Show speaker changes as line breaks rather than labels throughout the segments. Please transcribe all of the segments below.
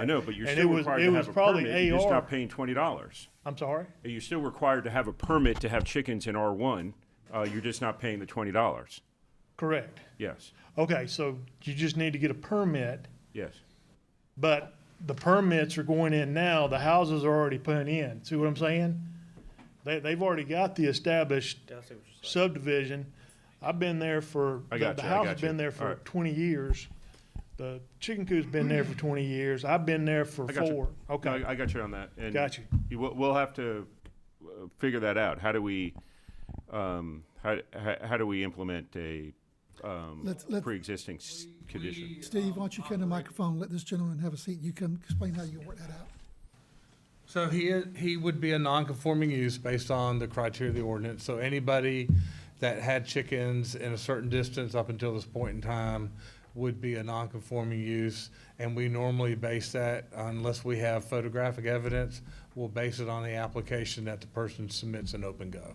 I know, but you're
And
still
it was-
required
it
to
was
have a
probably
permit, you're just
AR.
not paying twenty dollars.
I'm sorry?
You're still required to have a permit to have chickens in R one, uh, you're just not paying the twenty dollars.
Correct.
Yes,
Okay, so you just need to get a permit,
yes.
but the permits are going in now, the houses are already put in. See what I'm saying? They, they've already got the established subdivision. I've been there for,
I
the
got
the
you, I
house
got
has
you.
been there for
Alright.
twenty years. The chicken coop's been there for twenty years. I've been there for
I got you.
four.
No,
Okay,
I I got you on that. and
Got you.
We'll, we'll have to uh, figure that out. How do we, um, how, how, how do we implement a, um,
Let's- let's-
pre-existing s- condition?
Steve, why don't you come to the microphone, let this gentleman have a seat, you can explain how you work that out.
So he, i- he would be a non-conforming use based on the criteria of the ordinance. So anybody that had chickens in a certain distance up until this point in time would be a non-conforming use. And we normally base that, unless we have photographic evidence, we'll base it on the application that the person submits in OpenGov.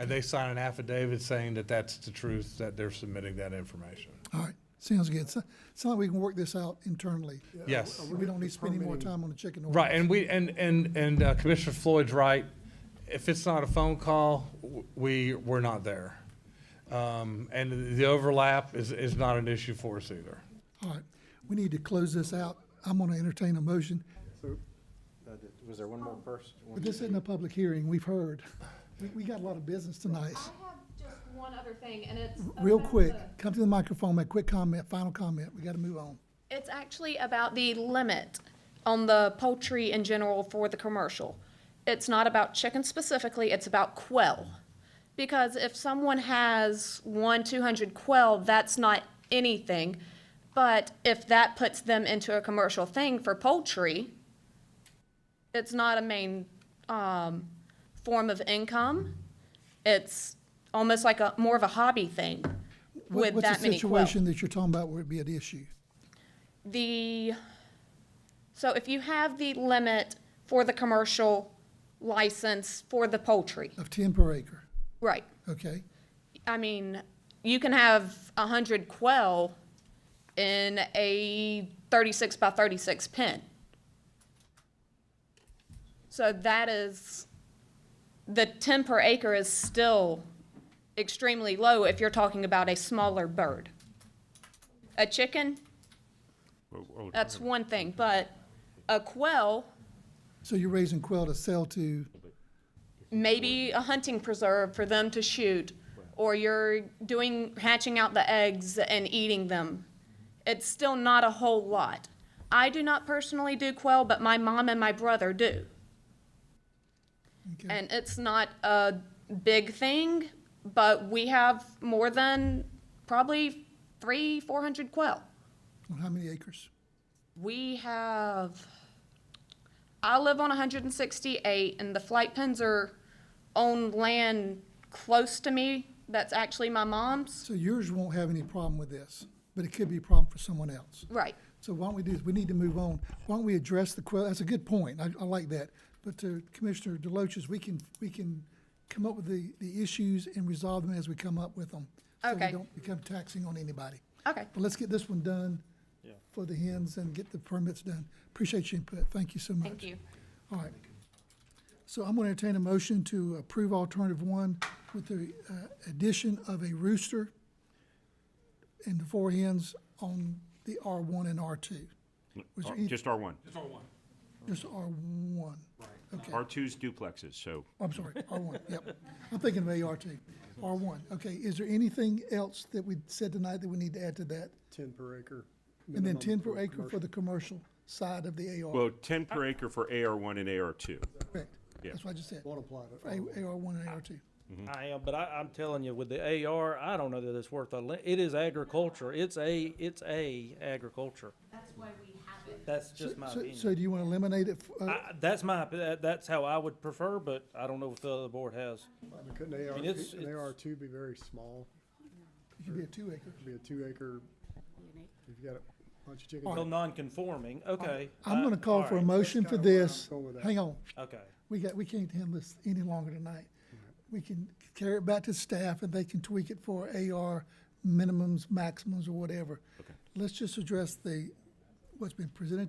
And they sign an affidavit saying that that's the truth, that they're submitting that information.
All right, sounds good, so, sounds like we can work this out internally.
Yes.
We don't need to spend any more time on the chicken ordinance.
Right, and we, and, and, and uh, Commissioner Floyd's right. If it's not a phone call, w- we, we're not there. Um, and the overlap is, is not an issue for us either.
All right, we need to close this out, I'm gonna entertain a motion,
Uh, th- Was there one more person? One
but this isn't a public hearing, we've heard. We, we got a lot of business tonight.
I have just one other thing, and it's.
Real
about
quick,
the-
come to the microphone, make a quick comment, final comment, we gotta move on.
It's actually about the limit on the poultry in general for the commercial. It's not about chicken specifically, it's about quail. Because if someone has one, two hundred quail, that's not anything. But if that puts them into a commercial thing for poultry, it's not a main, um, form of income. It's almost like a, more of a hobby thing
What-
with that many quail
What's the situation that you're talking about where it'd be an issue?
the, so if you have the limit for the commercial license for the poultry,
Of ten per acre,
right?
okay?
I mean, you can have a hundred quail in a thirty-six by thirty-six pen. So that is, the ten per acre is still extremely low if you're talking about a smaller bird. A chicken,
Well, well,
that's one thing, but a quail,
So you're raising quail to sell to,
maybe a hunting preserve for them to shoot, or you're doing, hatching out the eggs and eating them. It's still not a whole lot. I do not personally do quail, but my mom and my brother do.
okay,
And it's not a big thing, but we have more than probably three, four hundred quail.
on how many acres?
We have, I live on 168, and the flight pins are on land close to me. That's actually my mom's.
So yours won't have any problem with this, but it could be a problem for someone else.
Right.
So why don't we do this, we need to move on. Why don't we address the quail, that's a good point, I, I like that. But to Commissioner Deloach's, we can, we can come up with the, the issues and resolve them as we come up with them. So
Okay.
we don't become taxing on anybody.
Okay.
But let's get this one done for the hens and get the permits done. Appreciate your input, thank you so much.
Thank you.
All right. So I'm going to entertain a motion to approve alternative one with the uh, addition of a rooster and the four hens on the R1 and R2. Was there
R-
any-
Just R one.
Just R1. Okay,
R two's duplexes, so
I'm sorry, R1, yep. I'm thinking of AR2. R1, okay. Is there anything else that we said tonight that we need to add to that?
Ten per acre.
And then
minimum
10 per acre
commercial.
for the commercial side of the AR,
Well, ten
Uh,
per acre for AR one and AR two.
correct?
yeah.
That's what I just said,
Won't apply to.
for A- AR1 and AR2.
I am, but I, I'm telling you, with the AR, I don't know that it's worth a, li- it is agriculture. It's a, it's a agriculture. That's why we have it. That's just my
Uh,
So- So
opinion.
do you want to eliminate it? f- uh,
I, that's my, opi- that, that's how I would prefer, but I don't know if the other board has.
But Couldn't AR,
mean, it's-
couldn't
it's-
AR two be very small,
It could be a two acre.
be a two acre, if you got a bunch of chickens.
Well, non-conforming, okay.
I'm gonna
I-
call
all
for a
right,
motion for
kinda where I'm
this.
going with that.
Hang on,
Okay.
we got, we can't handle this any longer tonight. We can carry it back to staff and they can tweak it for AR minimums, maximums, or whatever. Let's just address the, what's been presented